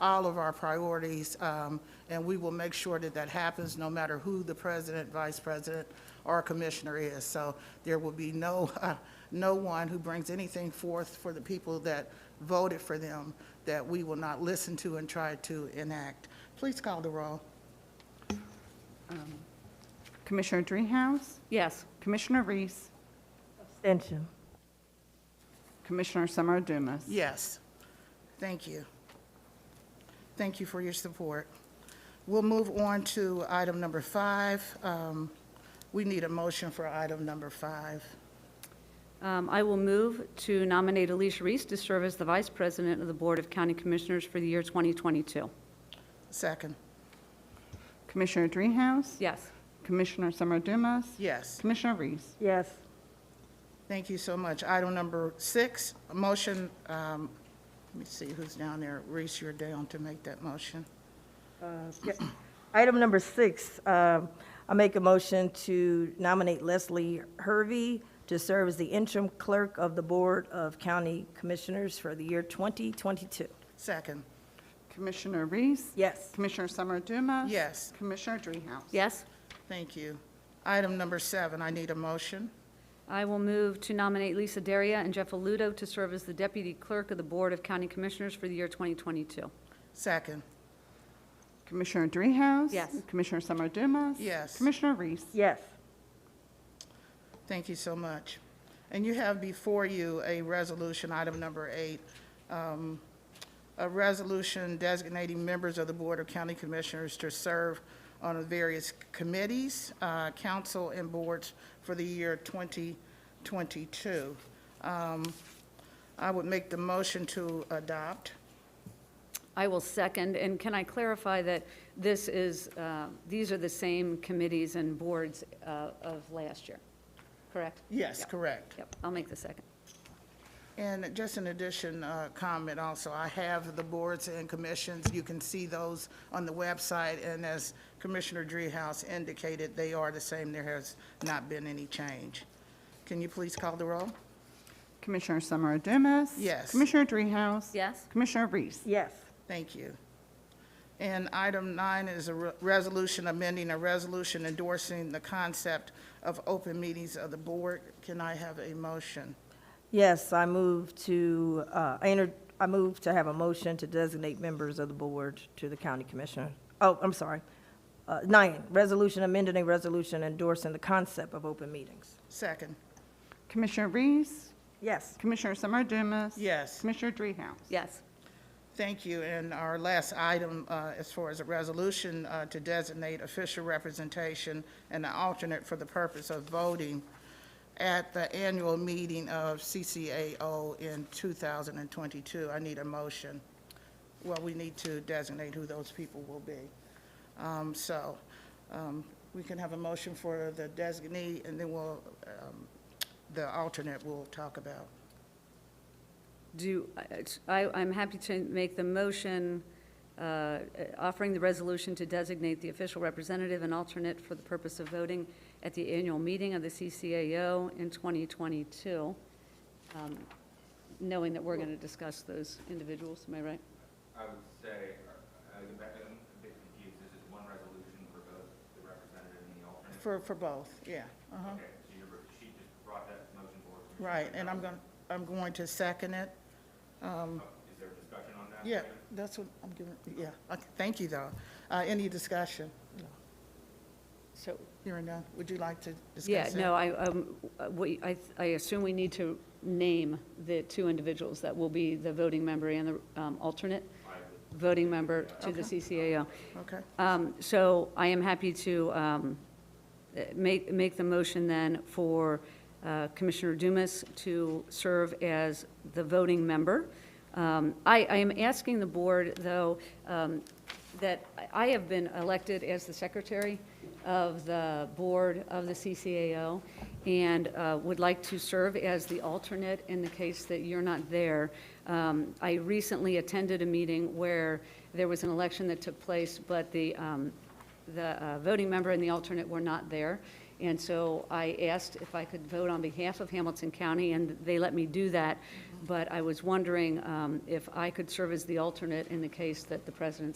all of our priorities, um, and we will make sure that that happens, no matter who the president, vice president, or commissioner is. So there will be no, uh, no one who brings anything forth for the people that voted for them that we will not listen to and try to enact. Please call the roll. Commissioner Dreehouse? Yes. Commissioner Reese? Abstention. Commissioner Summer Dumas? Yes. Thank you. Thank you for your support. We'll move on to item number five. Um, We need a motion for item number five. Um, I will move to nominate Alicia Reese to serve as the Vice President of the Board of County Commissioners for the year 2022. Second. Commissioner Dreehouse? Yes. Commissioner Summer Dumas? Yes. Commissioner Reese? Yes. Thank you so much. Item number six, a motion, um, let me see who's down there. Reese, you're down to make that motion. Yeah. Item number six, um, I make a motion to nominate Leslie Hervey to serve as the interim clerk of the Board of County Commissioners for the year 2022. Second. Commissioner Reese? Yes. Commissioner Summer Dumas? Yes. Commissioner Dreehouse? Yes? Thank you. Item number seven, I need a motion. I will move to nominate Lisa Daria and Jeff Aludo to serve as the Deputy Clerk of the Board of County Commissioners for the year 2022. Second. Commissioner Dreehouse? Yes. Commissioner Summer Dumas? Yes. Commissioner Reese? Yes. Thank you so much. And you have before you a resolution, item number eight, um, a resolution designating members of the Board of County Commissioners to serve on the various committees, uh, council, and boards for the year 2022. Um, I would make the motion to adopt. I will second, and can I clarify that this is, uh, these are the same committees and boards uh, of last year, correct? Yes, Yep. correct. Yep, I'll make the second. And just an addition uh, comment also, I have the boards and commissions, you can see those on the website, and as Commissioner Dreehouse indicated, they are the same, there has not been any change. Can you please call the roll? Commissioner Summer Dumas? Yes. Commissioner Dreehouse? Yes? Commissioner Reese? Yes. Thank you. And item nine is a re- resolution amending a resolution endorsing the concept of open meetings of the board. Can I have a motion? Yes, I move to, uh, I enter, I move to have a motion to designate members of the board to the county commissioner. Oh, I'm sorry. Uh, Nine, resolution amending a resolution endorsing the concept of open meetings. Second. Commissioner Reese? Yes. Commissioner Summer Dumas? Yes. Commissioner Dreehouse? Yes. Thank you. And our last item, uh, as far as a resolution uh, to designate official representation and an alternate for the purpose of voting at the annual meeting of CCAO in 2022. I need a motion. Well, we need to designate who those people will be. Um, So um, we can have a motion for the designee, and then we'll, um, the alternate we'll talk about. Do, I, I'm happy to make the motion uh, offering the resolution to designate the official representative and alternate for the purpose of voting at the annual meeting of the CCAO in 2022, um, knowing that we're going to discuss those individuals, am I right? I would say, uh, I get back, I'm a bit confused, this is one resolution for both the representative and the alternate? For, for both, yeah. Uh-huh. Okay, so you're, she just brought that motion forward. Commissioner Right, and I'm going, Dreehouse. I'm going to second it. Oh, Is there discussion on that? Yeah, that's what I'm giving, yeah. Okay, Thank you, though. Uh, Any discussion? So, Hearing none, would you like to yeah, discuss it? no, I, um, we, I, I assume we need to name the two individuals that will be the voting member and the um, alternate voting member to the CCAO. Okay, Um, So I am happy to um, eh, make, make the motion then for uh, Commissioner Dumas to serve as the voting member. Um, I, I am asking the board, though, um, that I- I have been elected as the secretary of the board of the CCAO and uh, would like to serve as the alternate in the case that you're not there. Um, I recently attended a meeting where there was an election that took place, but the, um, the uh, voting member and the alternate were not there. And so I asked if I could vote on behalf of Hamilton County, and they let me do that. but I was wondering um, if I could serve as the alternate in the case that the president